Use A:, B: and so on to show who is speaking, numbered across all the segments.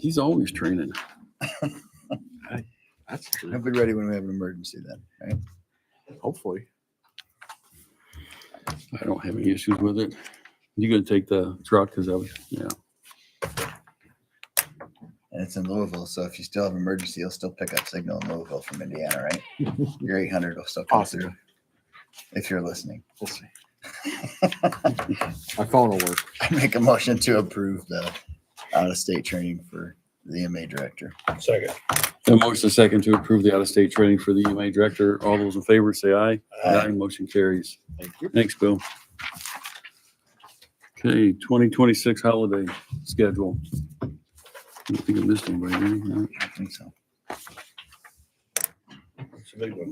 A: He's always training.
B: That's
C: I'll
B: true.
C: be ready when we have an emergency then, right?
B: Hopefully.
A: I don't have any issues with it. You gonna take the truck? Cause I was, yeah.
C: And it's in Louisville, so if you still have emergency, you'll still pick up signal in Louisville from Indiana, right? Your eight hundred will still come through. If you're listening,
B: We'll see. My phone will work.
C: I make a motion to approve the out-of-state training for the EMA director.
D: Second.
A: A motion is second to approve the out-of-state training for the EMA director. All those in favor say aye.
C: Aye.
A: Motion carries.
B: Thank you.
A: Thanks, Bill. Okay, twenty twenty-six holiday schedule. I don't think I missed anybody. did I? No.
C: I think so.
D: It's a big one.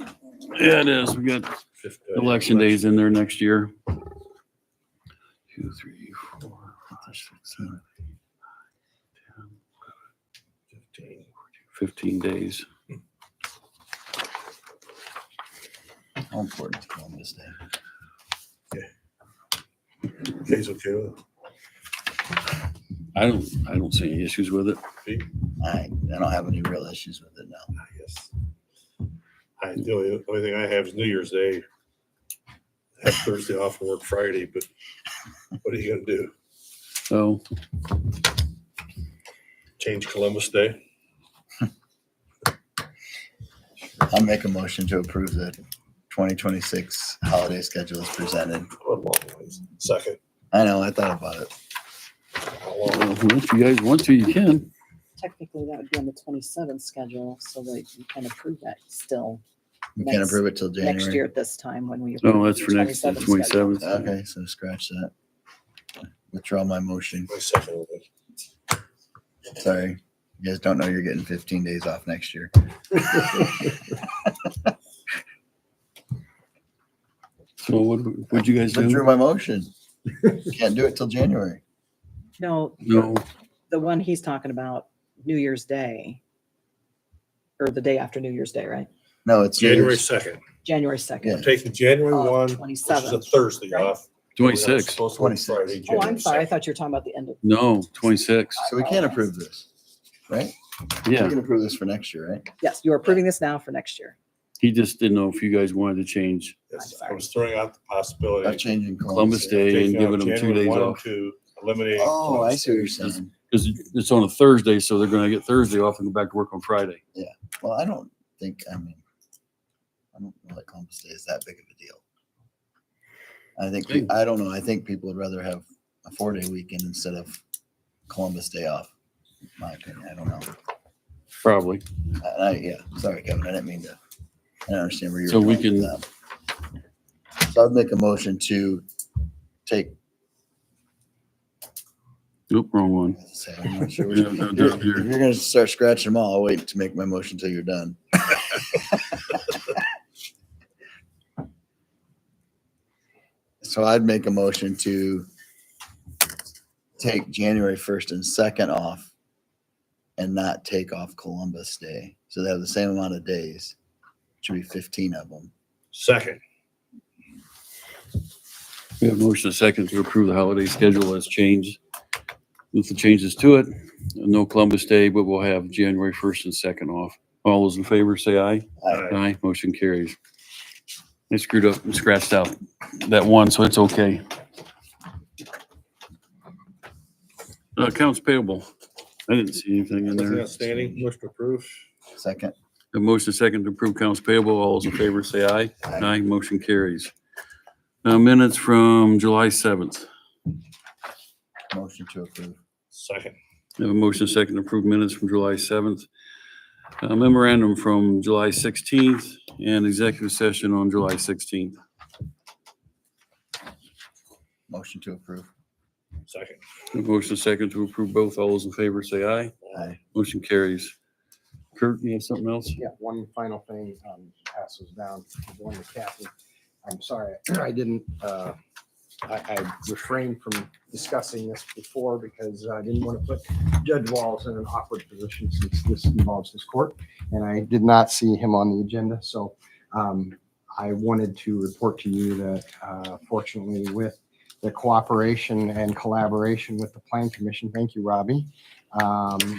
A: Yeah, it is. We got
D: Fifth-
A: Election days in there next year. Two, three, four, five, six, seven,
D: Fifteen.
A: fifteen days.
C: How important is Columbus Day?
D: Jay's okay with it.
A: I don't, I don't see any issues with it.
C: I, I don't have any real issues with it now.
D: I guess. I, the only, only thing I have is New Year's Day. Have Thursday off and work Friday, but what are you gonna do?
A: So,
D: Change Columbus Day?
C: I'll make a motion to approve the twenty twenty-six holiday schedule as presented.
D: What a long ways. Second.
C: I know, I thought about it.
D: How
A: well,
D: long?
A: if you guys want to, you can.
E: Technically, that would be on the twenty-seventh schedule, so that you can approve that still
C: We can't
E: Next-
C: approve it till
E: next
C: January.
E: year at this time when we.
A: Oh, that's for next,
E: the 27th schedule.
A: twenty-seventh.
C: Okay, so scratch that. Withdraw my motion.
D: My second one.
C: Sorry. You guys don't know you're getting fifteen days off next year.
A: So what, what'd you guys
C: Withdrew
A: do?
C: my motion. Can't do it till January.
E: No,
A: No,
E: the one he's talking about, New Year's Day, or the day after New Year's Day, right?
C: No, it's January.
D: January second.
E: January
C: Yeah.
E: second. uh,
D: Taking January one, which is a
E: Twenty-seventh.
D: Thursday
E: Oh, right?
D: off. We're not
A: twenty-six.
D: supposed to work Friday,
E: Oh,
D: January
E: I'm sorry. I
D: 2nd.
E: thought you were talking about the end of,
A: No, twenty-six.
C: So we can't approve this, right? We
A: Yeah,
C: can approve this for next year, right?
E: yes, you're approving this now for next year.
A: he just didn't know if you guys wanted to change
D: Yes,
E: I'm
D: I was throwing out the
C: By
D: possibility.
C: changing
A: Columbus Day and
D: taking out
A: giving them two
D: January
A: days
D: one and
A: off.
D: Two, eliminating.
C: Oh, I
D: Columbus
C: see what you're
D: Day.
C: saying.
A: Cause it's on a Thursday, so they're gonna get Thursday off and go back to work on Friday.
C: Well, I don't think, I mean, I don't know that Columbus Day is that big of a deal. I think, pe- I don't know, I think people would rather have a four-day weekend instead of Columbus Day off. in My opinion, I don't know.
A: Probably.
C: I, I- yeah, sorry, Kevin, I didn't mean to. I don't understand where you're.
A: So we
C: going with that. So I'd make a motion to take,
A: Oop, wrong one.
C: say, I'm not sure. which-
A: Yeah, no, they're
C: If
A: up here.
C: you're gonna start scratching them all, I'll wait to make my motion till you're done. So I'd make a motion to take January first and second off and not take off Columbus Day. So they have the same amount of days. Should be fifteen of them.
D: Second.
A: We have a motion and a second to approve the holiday schedule as changed. With the changes to it, no Columbus Day, but we'll have January 1st and 2nd off. All those in favor, say aye.
D: Aye.
A: Aye, motion carries. I screwed up and scratched out that one, so it's okay. Uh, Accounts payable. I didn't see anything in
D: Nothing
A: there.
D: outstanding, much to approve.
C: Second,
A: A motion second to approve accounts payable. All those in favor, say aye.
C: Aye.
A: Aye, motion carries. Now minutes from July 7th.
C: motion to approve.
D: Second.
A: I Have a motion second to approve minutes from July 7th, a memorandum from July 16th, and executive session on July 16th.
C: Motion to approve.
D: Second.
A: A Motion second to approve both. All those in favor say aye.
C: Aye.
A: Motion carries. Kurt, you have something else?
F: Yeah, one final thing, um, passes down, one to Kathy. I'm sorry, I didn't, uh, I, I refrained from discussing this before because I didn't want to put Judge Walls in an awkward position since this involves his court. And I did not see him on the agenda, so, um, I wanted to report to you that, uh, fortunately with the cooperation and collaboration with the Plan Commission, thank you, Robbie. Um,